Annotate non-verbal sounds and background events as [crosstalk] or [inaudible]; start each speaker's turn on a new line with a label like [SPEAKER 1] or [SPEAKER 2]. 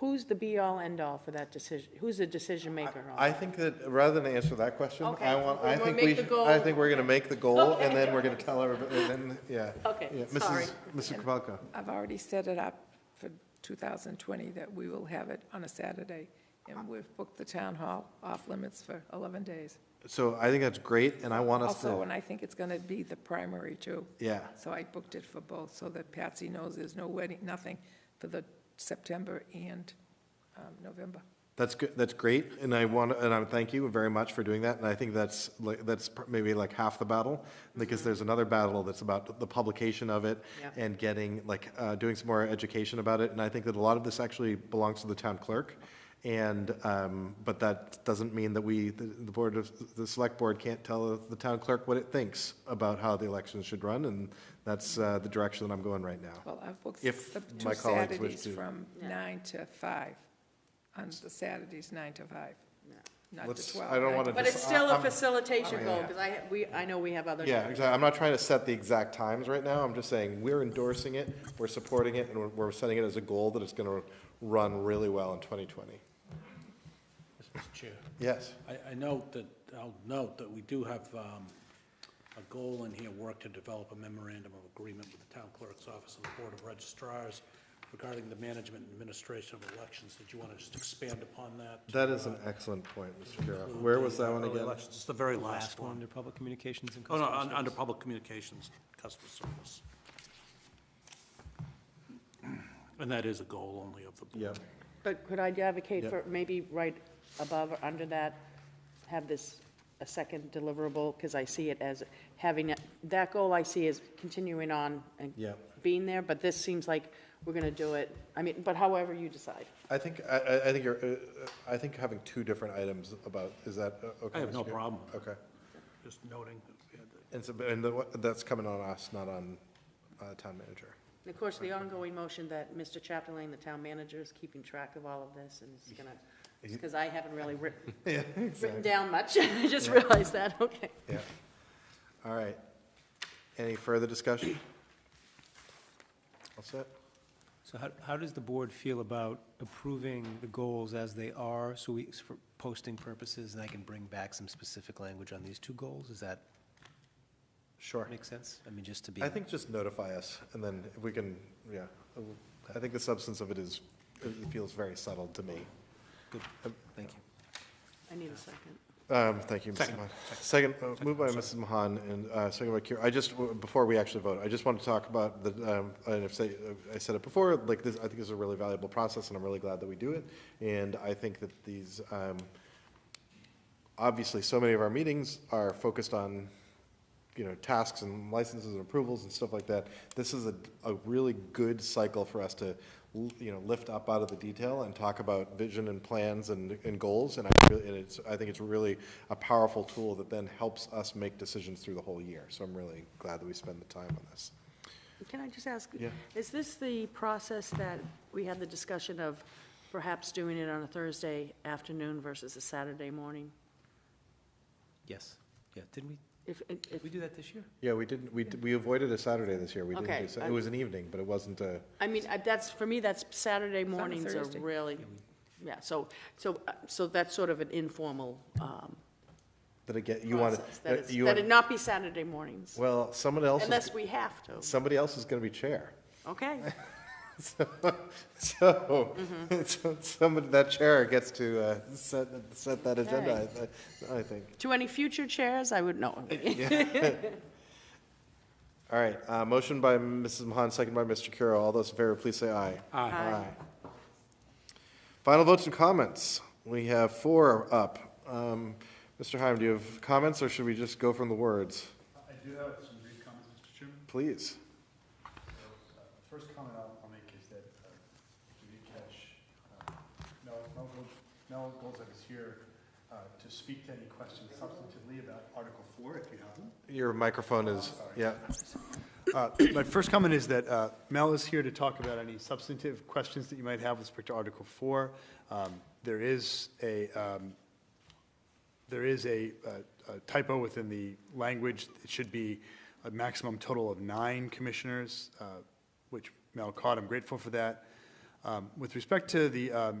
[SPEAKER 1] Who's the be-all, end-all for that decision? Who's the decision maker on
[SPEAKER 2] I think that, rather than answer that question,
[SPEAKER 1] Okay.
[SPEAKER 2] I want, I
[SPEAKER 1] We'll
[SPEAKER 2] think
[SPEAKER 1] make
[SPEAKER 2] we,
[SPEAKER 1] the
[SPEAKER 2] should-
[SPEAKER 1] goal.
[SPEAKER 2] I think we're gonna make the goal,
[SPEAKER 1] Okay.
[SPEAKER 2] and then we're gonna tell everybody, and then, yeah.
[SPEAKER 1] Okay,
[SPEAKER 2] Yeah,
[SPEAKER 1] sorry.
[SPEAKER 2] Mrs. Mrs. Kapalka.
[SPEAKER 3] I've already set it up for 2020 that we will have it on a Saturday, and we've booked the town hall off limits for 11 days.
[SPEAKER 2] So I think that's great, and I want us
[SPEAKER 3] Also,
[SPEAKER 2] to,
[SPEAKER 3] and I think it's going to be the primary too.
[SPEAKER 2] yeah,
[SPEAKER 3] So I booked it for both, so that Patsy knows there's no wedding, nothing for the September and um, November.
[SPEAKER 2] that's good, that's great, and I want, and I thank you very much for doing that, and I think that's, like, that's pr- maybe like half the battle, because there's another battle that's about the publication of it,
[SPEAKER 1] Yeah.
[SPEAKER 2] and getting, like, uh, doing some more education about it, and I think that a lot of this actually belongs to the town clerk, and, um, but that doesn't mean that we, the the board of, the select board can't tell the town clerk what it thinks about how the elections should run, and that's uh, the direction that I'm going right now.
[SPEAKER 3] Well, I've booked
[SPEAKER 2] If
[SPEAKER 3] the
[SPEAKER 2] my
[SPEAKER 3] two
[SPEAKER 2] colleagues wish
[SPEAKER 3] Saturdays
[SPEAKER 2] to.
[SPEAKER 3] from nine to five, on the Saturdays, nine to five, not the
[SPEAKER 2] Let's-
[SPEAKER 3] 12.
[SPEAKER 2] I don't
[SPEAKER 3] nine
[SPEAKER 2] wanna
[SPEAKER 1] But it's
[SPEAKER 2] I-
[SPEAKER 1] still a
[SPEAKER 2] I'm-
[SPEAKER 1] facilitation
[SPEAKER 2] Yeah.
[SPEAKER 1] goal, because I, ha- we, I know we have other.
[SPEAKER 2] Yeah, exactly. I'm not trying to set the exact times right now. I'm just saying we're endorsing it, we're supporting it, and we're- we're setting it as a goal that it's going to run really well in 2020.
[SPEAKER 4] Yes, Mr. Chair,
[SPEAKER 2] Yes.
[SPEAKER 4] I, I note that, I'll note that we do have um, a goal in here, work to develop a memorandum of agreement with the town clerk's office and the Board of registrars regarding the management and administration of elections. Did you want to just expand upon that?
[SPEAKER 2] That is an excellent point, Mr. Carroll. Where was that one
[SPEAKER 4] Early
[SPEAKER 2] again?
[SPEAKER 4] elections, It's the very last
[SPEAKER 5] Last one,
[SPEAKER 4] one.
[SPEAKER 5] under public communications and
[SPEAKER 4] Oh,
[SPEAKER 5] customer
[SPEAKER 4] no, un-
[SPEAKER 5] service.
[SPEAKER 4] under public communications, customer service. And that is a goal only of the board.
[SPEAKER 2] Yep.
[SPEAKER 1] But could I advocate
[SPEAKER 2] Yeah.
[SPEAKER 1] for, maybe right above or under that, have this a second deliverable? Because I see it as having, it- that goal I see is continuing on and
[SPEAKER 2] Yeah.
[SPEAKER 1] being there, but this seems like we're going to do it, I mean, but however you decide.
[SPEAKER 2] I think, I- I, I think you're, uh, uh, I think having two different items about, is that uh, okay?
[SPEAKER 4] I have
[SPEAKER 2] Mr.
[SPEAKER 4] no
[SPEAKER 2] Carroll?
[SPEAKER 4] problem with
[SPEAKER 2] Okay.
[SPEAKER 4] Just noting, that we had the-
[SPEAKER 2] And so, and the- what- that's coming on us, not on uh, town manager.
[SPEAKER 1] And of course, the ongoing motion that Mr. Chapdelaine, the town manager, is keeping track of all of this and is going to, because I haven't really written,
[SPEAKER 2] Yeah,
[SPEAKER 1] written
[SPEAKER 2] exactly.
[SPEAKER 1] down much. [laughs] I just realized that, okay.
[SPEAKER 2] Yeah. All right. Any further discussion? All set?
[SPEAKER 5] So how, how does the board feel about approving the goals as they are, so we, for posting purposes, and I can bring back some specific language on these two goals? Does that
[SPEAKER 2] Sure.
[SPEAKER 5] make sense? I mean, just to be.
[SPEAKER 2] I think just notify us, and then if we can, yeah, I think the substance of it is, it feels very subtle to me.
[SPEAKER 5] Good, thank you.
[SPEAKER 1] I need a second.
[SPEAKER 2] Um, Thank you, Mrs. Mahan. Second, uh, moved by Mrs. Mahan and uh, second by Kira. I just, w- before we actually vote, I just want to talk about the, um, and if say, I said it before, like this, I think this is a really valuable process, and I'm really glad that we do it. And I think that these, um, obviously, so many of our meetings are focused on, you know, tasks and licenses and approvals and stuff like that. This is a, a really good cycle for us to, l- you know, lift up out of the detail and talk about vision and plans and, and goals. And I really, and it's, I think it's really a powerful tool that then helps us make decisions through the whole year. So I'm really glad that we spend the time on this.
[SPEAKER 1] Can I just ask?
[SPEAKER 2] Yeah.
[SPEAKER 1] Is this the process that we had the discussion of perhaps doing it on a Thursday afternoon versus a Saturday morning?
[SPEAKER 5] Yes, yeah, didn't we,
[SPEAKER 1] If, if,
[SPEAKER 5] did we do that this year?
[SPEAKER 2] Yeah, we didn't, we, d- we avoided a Saturday this year. We didn't,
[SPEAKER 1] Okay,
[SPEAKER 2] do Sa- it
[SPEAKER 1] I'm-
[SPEAKER 2] was an evening, but it wasn't a,
[SPEAKER 1] I mean, I- that's, for me, that's Saturday
[SPEAKER 3] on a
[SPEAKER 1] mornings are
[SPEAKER 3] Thursday.
[SPEAKER 1] really, yeah, so, so, uh, so that's sort of an informal, um,
[SPEAKER 2] that again, you wanted.
[SPEAKER 1] process. That it's-
[SPEAKER 2] you
[SPEAKER 1] that
[SPEAKER 2] wanted-
[SPEAKER 1] it not be Saturday mornings,
[SPEAKER 2] Well, someone else, is-
[SPEAKER 1] unless we have to,
[SPEAKER 2] somebody else is going to be chair.
[SPEAKER 1] okay?
[SPEAKER 2] [laughs] So, so, so somebody, that chair gets to uh, set, set that agenda, I- I, I think.
[SPEAKER 1] [laughs] To any future chairs, I would
[SPEAKER 2] [laughs]
[SPEAKER 1] know.
[SPEAKER 2] All right, uh, motion by Mrs. Mahan, second by Mr. Kuro. All those in favor, please say aye.
[SPEAKER 1] Aye.
[SPEAKER 2] Uh, Final votes and comments. We have four up. Um, Mr. Heim, do you have comments, or should we just go from the words?
[SPEAKER 6] I do have some brief comments, Mr. Chairman.
[SPEAKER 2] Please.
[SPEAKER 6] The Uh, First comment I'll I'll make is that uh, to recash, uh, Mel, Mel Gold- Mel Golzak is here uh, to speak to any questions substantively about Article Four, if you have them.
[SPEAKER 2] Your microphone is, yeah.
[SPEAKER 6] Uh, My first comment is that uh, Mel is here to talk about any substantive questions that you might have with respect to Article 4. Um, There is a, um, there is a uh, a typo within the language. It should be a maximum total of nine commissioners, uh, which Mel caught. I'm grateful for that. Um, Um, With respect to the um,